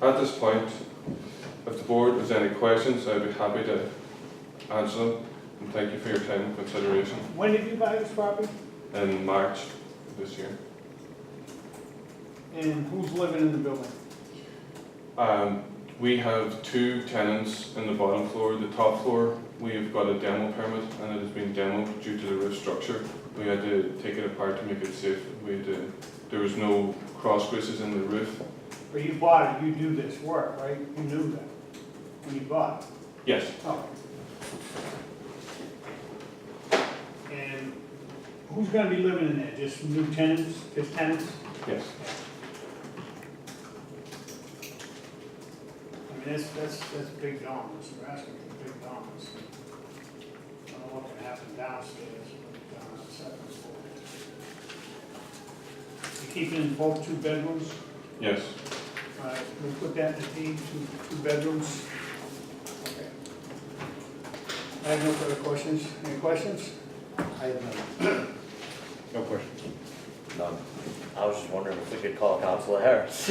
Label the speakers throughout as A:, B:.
A: At this point, if the board has any questions, I'd be happy to answer them. And thank you for your time and consideration
B: When did you buy this property?
A: in March this year.
B: And who's living in the building?
A: Um, we have two tenants in the bottom floor. The top floor, we have got a demo permit and it has been demoed due to the roof structure. We had to take it apart to make it safe. We had to, there was no cross braces in the roof.
B: Or you bought it, you knew this work, right? You knew that when you bought it.
A: Yes,
B: Oh. And who's gonna be living in there? Just new tenants, just tenants?
A: yes.
B: I mean, that's, that's, that's big dollars, we're asking for big dollars. I don't know what can happen downstairs, but uh, down on the second floor. You keeping both two bedrooms?
A: Yes,
B: Uh, we put that in the deed, two, two bedrooms. Okay. I have no further questions. Any questions?
C: I have none.
A: no questions.
D: None. I was just wondering if we could call Council Harris.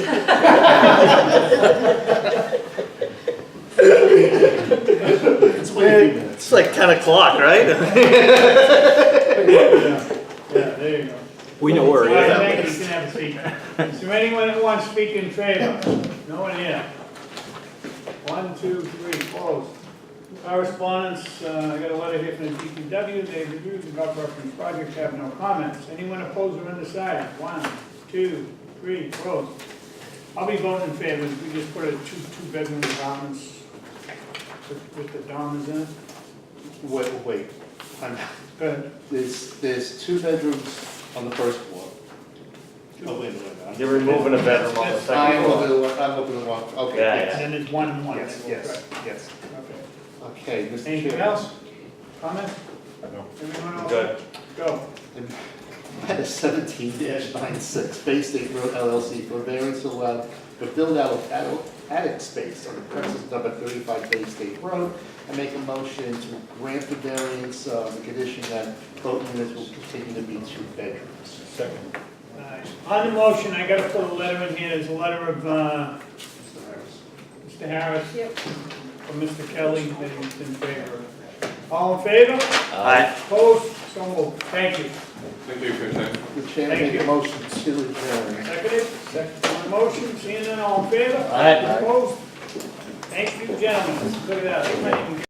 C: It's only a few minutes.
D: It's like ten o'clock, right?
B: Yeah, there you go.
E: We know where it
B: All right,
E: is.
B: thank you, you can have a seat. Is there anyone that wants to speak in favor? No one here. One, two, three, closed. Correspondence, uh, I got a letter here from the DPW, they reviewed the golf reference project, have no comments. Anyone opposed or undecided? One, two, three, closed. I'll be voting in favor, if we just put a two, two bedroom apartments with, with the dormers in it.
C: Wait, wait, I'm,
B: Go ahead.
C: there's, there's two bedrooms on the first floor. Oh, wait, wait, wait.
D: You're removing a bedroom on the
B: That's
D: second
C: I'm
D: floor.
C: over the, one- I'm over the one, okay,
D: Yeah,
B: And
C: yes,
B: then there's one and one.
C: yes, yes, yes.
B: Okay.
C: Okay, Mr. Chair.
B: Anything else? Comment?
A: No.
B: Everyone else?
D: Good.
B: Go.
C: At a seventeen 96 Bay State Road LLC for variance to allow the build-out of attic- attic space on the premises number thirty-five Bay State Road. I make a motion to grant the variance, uh, the condition that both units will continue to be two bedrooms.
A: Second.
B: Nice. On the motion, I gotta put a letter in here, there's a letter of, uh,
C: Mr. Harris.
B: Mr. Harris.
F: Yep.
B: From Mr. Kelly, that he's in favor. of it. All in favor?
D: Aye.
B: Opposed? So moved. Thank you.
A: Thank you for your time.
C: The chair
B: Thank
C: make a
B: you.
C: motion to adjourn.
B: Seconded? Second. On the motion, seeing none, all in favor?
D: Aye.
B: Opposed? Thank you, gentlemen. Look at that. They might even-